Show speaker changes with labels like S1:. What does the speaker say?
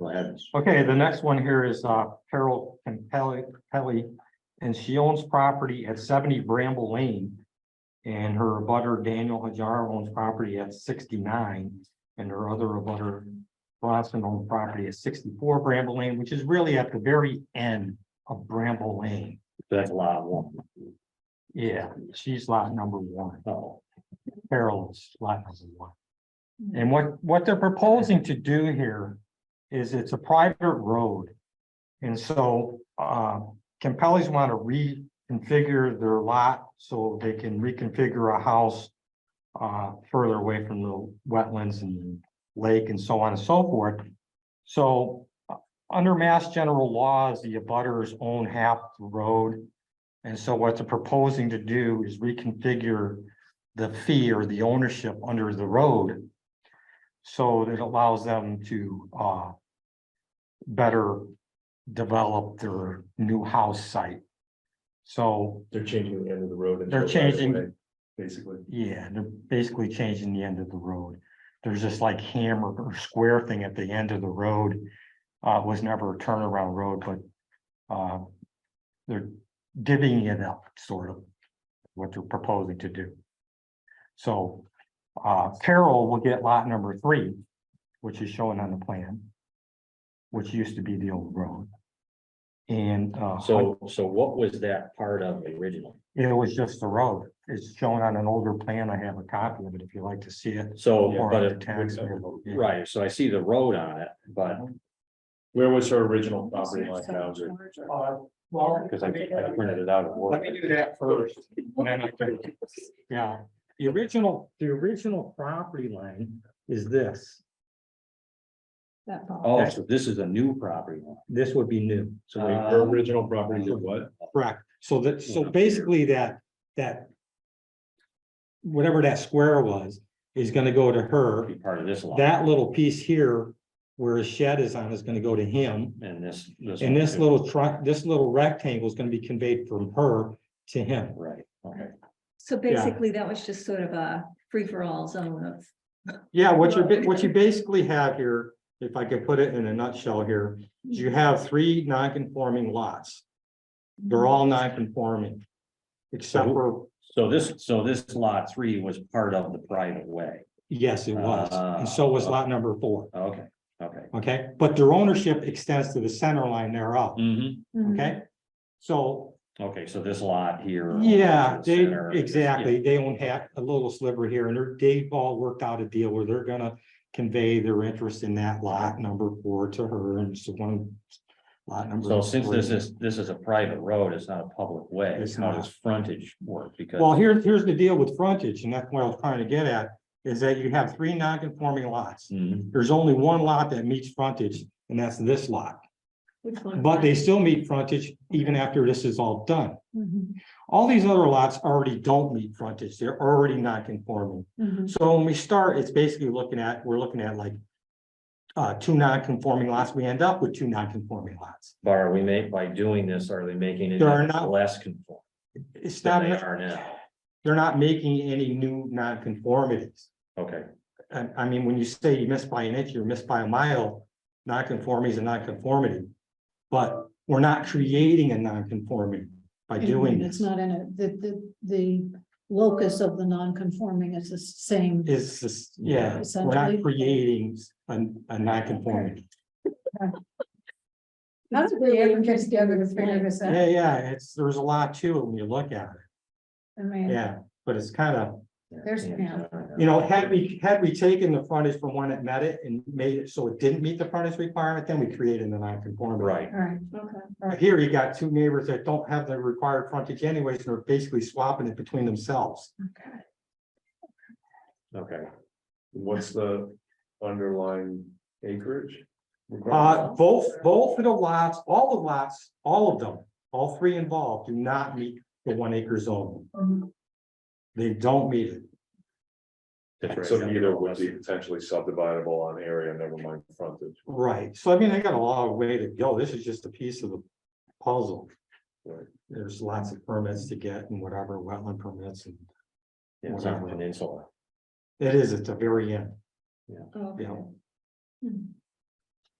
S1: Go ahead.
S2: Okay, the next one here is uh, Carol Kelly, Kelly, and she owns property at seventy Bramble Lane. And her abutter Daniel Hajar owns property at sixty-nine, and her other abutter Bronson owns property at sixty-four Bramble Lane, which is really at the very end of Bramble Lane.
S1: That's a lot of one.
S2: Yeah, she's lot number one.
S1: Oh,
S2: Carol is lot number one. And what, what they're proposing to do here is it's a private road. And so, uh, Campelli's want to reconfigure their lot so they can reconfigure a house. Uh, further away from the wetlands and lake and so on and so forth. So, uh, under mass general laws, the abutters own half the road. And so what they're proposing to do is reconfigure the fee or the ownership under the road. So that allows them to uh. Better develop their new house site. So,
S3: They're changing the end of the road. into
S2: They're
S3: a right of
S2: changing-
S3: way, Basically,
S2: yeah, they're basically changing the end of the road. There's this like hammer or square thing at the end of the road. Uh, it was never a turnaround road, but uh. They're divvying it up, sort of, what they're proposing to do. So, uh, Carol will get lot number three, which is shown on the plan. Which used to be the old road. And, uh.
S1: so, so what was that part of originally?
S2: It was just the road. It's shown on an older plan. I have a copy of it if you'd like to see it.
S1: So,
S2: Or
S1: Oh, but
S2: on the
S1: it,
S2: tax
S3: would-
S2: bill. Yeah.
S1: right, so I see the road on it, but
S3: where was her original property line boundary? Oh,
S2: Well,
S1: because I, I printed it out at work.
S2: do that first. Yeah, the original, the original property line is this.
S1: Oh, so this is a new property. line.
S2: This would be new.
S3: So wait, Uh, her original property is what?
S2: Correct. So that, so basically that, that. Whatever that square was, is gonna go to her.
S1: Be part of this lot.
S2: That little piece here where his shed is on is gonna go to him.
S1: And this, this.
S2: And
S1: one
S2: this
S1: too.
S2: little truck, this little rectangle is gonna be conveyed from her to him.
S1: Right, okay.
S4: So basically, that was just sort of a free-for-all zone of,
S2: Yeah, what you, ba- what you basically have here, if I could put it in a nutshell here, is you have three non-conforming lots. They're all non-conforming. Except for,
S1: So this, so this lot three was part of the private way.
S2: yes, it was, and so
S1: Uh.
S2: was lot number four,
S1: Okay, okay.
S2: okay? But their ownership extends to the center line thereof,
S3: Mm-hmm.
S1: Mhm.
S4: Mm-hmm.
S2: okay? So,
S1: Okay, so this lot here.
S2: yeah,
S1: the
S2: they,
S1: center, yeah.
S2: exactly, they own half, a little sliver here, and they're, they've all worked out a deal where they're gonna convey their interest in that lot number four to her, and so one lot number.
S1: So since this
S2: three.
S1: is, this is a private road, it's not a public way,
S2: It's
S1: how
S2: not.
S1: does frontage work? Because.
S2: Well, here, here's the deal with frontage, and that's what I was trying to get at, is that you have three non-conforming lots.
S1: Mhm.
S2: There's only one lot that meets frontage, and that's this lot,
S4: which one?
S2: but they still meet frontage even after this is all done.
S4: Mhm,
S2: All these other lots already don't meet frontage, they're already non-conforming.
S4: mhm.
S2: So when we start, it's basically looking at, we're looking at like uh, two non-conforming lots, we end up with two non-conforming lots.
S1: But are we make, by doing this, are they making it
S2: There are not-
S1: less conform?
S2: It's
S1: than
S2: not,
S1: They are now,
S2: they're not making any new non-conformities.
S1: okay,
S2: I, I mean, when you say you miss by an inch, you're missed by a mile, non-conformity is a non-conformity. But we're not creating a non-conformity by doing
S5: It's
S2: this.
S5: not in it, the, the, the locus of the non-conforming is the same.
S2: It's just, yeah, we're not
S5: Essentially.
S2: creating a, a non-conformity.
S5: How did they ever get together to figure this out?
S2: Yeah, yeah, it's, there's a lot to it when you look at
S5: I
S2: it,
S5: mean,
S2: yeah, but it's kind of,
S5: there's, yeah,
S2: you know, had we, had we taken the frontage from when it met it and made it so it didn't meet the frontage requirement, then we created a non-conformity.
S1: right,
S5: all right,
S4: Okay.
S2: But Here you got two neighbors that don't have the required frontage anyways, and are basically swapping it between themselves. Uh,
S5: okay.
S1: okay.
S3: What's the underlying acreage?
S2: Uh, both, both of the lots, all the lots, all of them, all three involved do not meet the one acre zone.
S5: Mhm.
S2: They don't meet it.
S3: So either would be potentially subdividable on area, never mind frontage.
S2: Right, so I mean, I got a long way to go. This is just a piece of the puzzle.
S3: Right.
S2: There's lots of permits to get and whatever, wetland permits, and
S1: Yeah, It's not an insula.
S2: it is at the very end,
S4: Oh,
S2: you
S4: okay.
S2: know.
S4: Mhm.